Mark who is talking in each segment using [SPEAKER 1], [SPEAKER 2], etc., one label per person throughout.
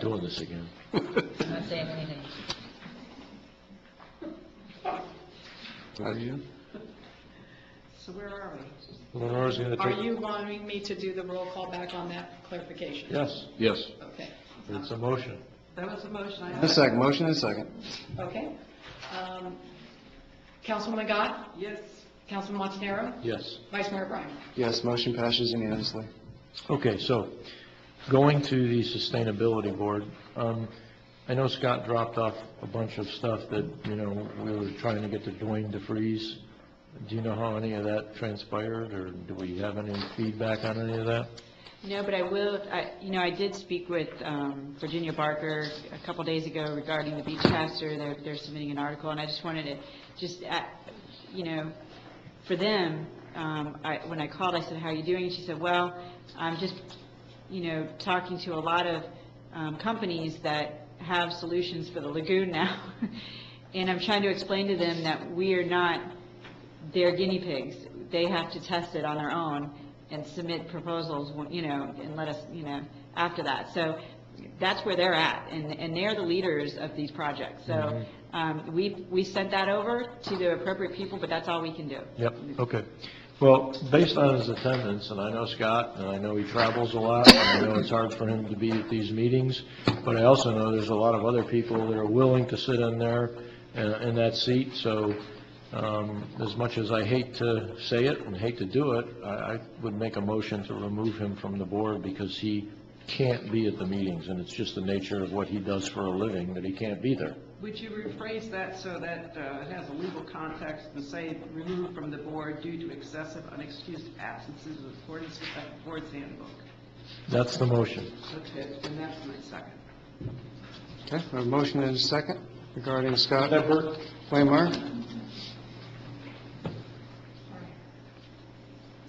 [SPEAKER 1] doing this again.
[SPEAKER 2] I'm not saying anything.
[SPEAKER 3] So where are we?
[SPEAKER 1] Lenore's going to
[SPEAKER 3] Are
[SPEAKER 1] take...
[SPEAKER 3] you wanting me to do the roll call back on that clarification?
[SPEAKER 1] Yes. Yes.
[SPEAKER 3] Okay.
[SPEAKER 1] It's a motion.
[SPEAKER 3] That was the motion I
[SPEAKER 4] A
[SPEAKER 3] had.
[SPEAKER 4] second, motion and a second.
[SPEAKER 3] Okay. Um, Councilwoman Gott? Yes. Councilman Montanaro?
[SPEAKER 1] Yes.
[SPEAKER 3] Vice Mayor Bryan?
[SPEAKER 4] Yes, motion passes unanimously.
[SPEAKER 1] Okay, so going to the Sustainability Board, um, I know Scott dropped off a bunch of stuff that, you know, we were trying to get to Dwayne DeFreeze. Do you know how any of that transpired, or do we have any feedback on any of that?
[SPEAKER 5] No, but I will, I- you know, I did speak with um, Virginia Barker a couple days ago regarding the beach pastor. They're they're submitting an article, and I just wanted to, just, uh, you know, for them, um, I- when I called, I said, "How are you doing?" And she said, "Well, I'm just, you know, talking to a lot of um, companies that have solutions for the lagoon now." And I'm trying to explain to them that we are not they're guinea pigs. They have to test it on their own and submit proposals, you know, and let us, you know, after that. So that's where they're at, and, and they're the leaders of these projects. So um, we, we sent that over to the appropriate people, but that's all we can do.
[SPEAKER 1] Yep, okay. Well, based on his attendance, and I know Scott, and I know he travels a lot, and I know it's hard for him to be at these meetings, but I also know there's a lot of other people that are willing to sit in there, uh, in that seat, so um, as much as I hate to say it and hate to do it, I I would make a motion to remove him from the board because he can't be at the meetings, and it's just the nature of what he does for a living, that he can't be there.
[SPEAKER 6] Would you rephrase that so that uh, it has a legal context and say removed from the board due to excessive unexcused absences in accordance with the board's handbook?
[SPEAKER 1] That's the motion.
[SPEAKER 6] Okay, and that's my second.
[SPEAKER 4] Okay, we have a motion and a second regarding Scott
[SPEAKER 1] Pepper?
[SPEAKER 4] Waymeyer.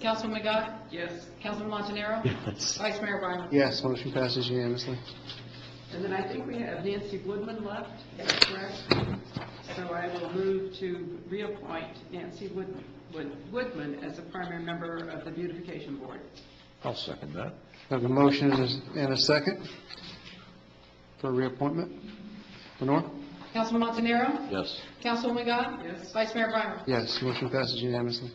[SPEAKER 3] Councilwoman Gott?
[SPEAKER 6] Yes,
[SPEAKER 3] Councilman Montanaro?
[SPEAKER 1] Yes.
[SPEAKER 3] Vice Mayor Bryan?
[SPEAKER 4] Yes, motion passes unanimously.
[SPEAKER 6] and then I think we have Nancy Woodman left, is that correct? So I will move to reappoint Nancy Wood- Wood- Woodman as a primary member of the beautification board.
[SPEAKER 1] I'll second that.
[SPEAKER 4] We have a motion and a- and a second for reappointment. Lenore?
[SPEAKER 3] Councilman Montanaro?
[SPEAKER 1] Yes.
[SPEAKER 3] Councilwoman Gott?
[SPEAKER 6] Yes.
[SPEAKER 3] Vice Mayor Bryan?
[SPEAKER 4] Yes, motion passes unanimously.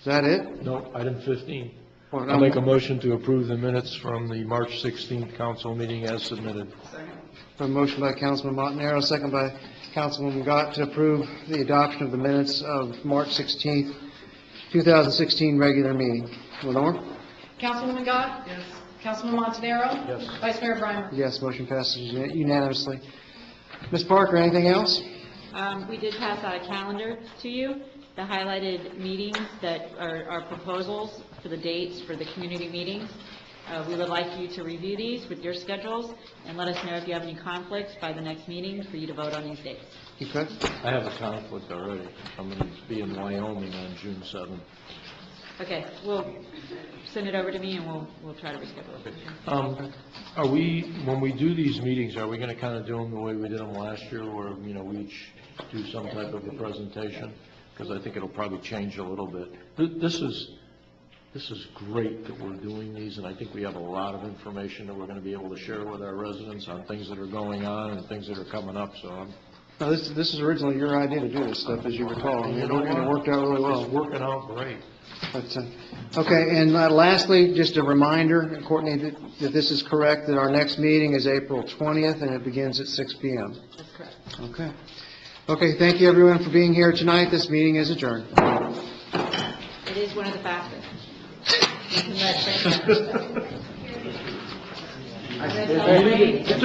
[SPEAKER 4] Is that it?
[SPEAKER 1] No, item 15.
[SPEAKER 4] Or-
[SPEAKER 1] I'll make a motion to approve the minutes from the March 16th council meeting as submitted.
[SPEAKER 6] Second?
[SPEAKER 4] A motion by Councilman Montanaro, second by Councilwoman Gott to approve the adoption of the minutes of March 16th, 2016 regular meeting. Lenore?
[SPEAKER 3] Councilwoman Gott?
[SPEAKER 6] Yes.
[SPEAKER 3] Councilman Montanaro?
[SPEAKER 1] Yes.
[SPEAKER 3] Vice Mayor Bryan?
[SPEAKER 4] Yes, motion passes unanimously. Ms. Parker, anything else?
[SPEAKER 5] Um, We did pass out a calendar to you, the highlighted meetings that are are proposals for the dates for the community meetings. Uh, We would like you to review these with your schedules and let us know if you have any conflicts by the next meeting for you to vote on these dates.
[SPEAKER 4] Okay.
[SPEAKER 1] I have a conflict already. I'm going to be in Wyoming on June 7th.
[SPEAKER 5] Okay, we'll send it over to me and we'll, we'll try to reschedule it.
[SPEAKER 1] Um, Are we, when we do these meetings, are we going to kind of do them the way we did them last year, where, you know, we each do some type of a presentation? Because I think it'll probably change a little bit. Th- This is, this is great that we're doing these, and I think we have a lot of information that we're going to be able to share with our residents on things that are going on and things that are coming up, so I'm...
[SPEAKER 4] Now, this, this is originally your idea to do this stuff, as you recall, and it worked- and it worked out really well.
[SPEAKER 1] It's working out great.
[SPEAKER 4] But, uh, Okay, and uh, lastly, just a reminder, Courtney, that that this is correct, that our next meeting is April 20th, and it begins at 6 PM.
[SPEAKER 5] That's correct.
[SPEAKER 4] Okay. Okay, thank you, everyone, for being here tonight. This meeting is adjourned.
[SPEAKER 5] It is one of the fastest.
[SPEAKER 2] That's all right.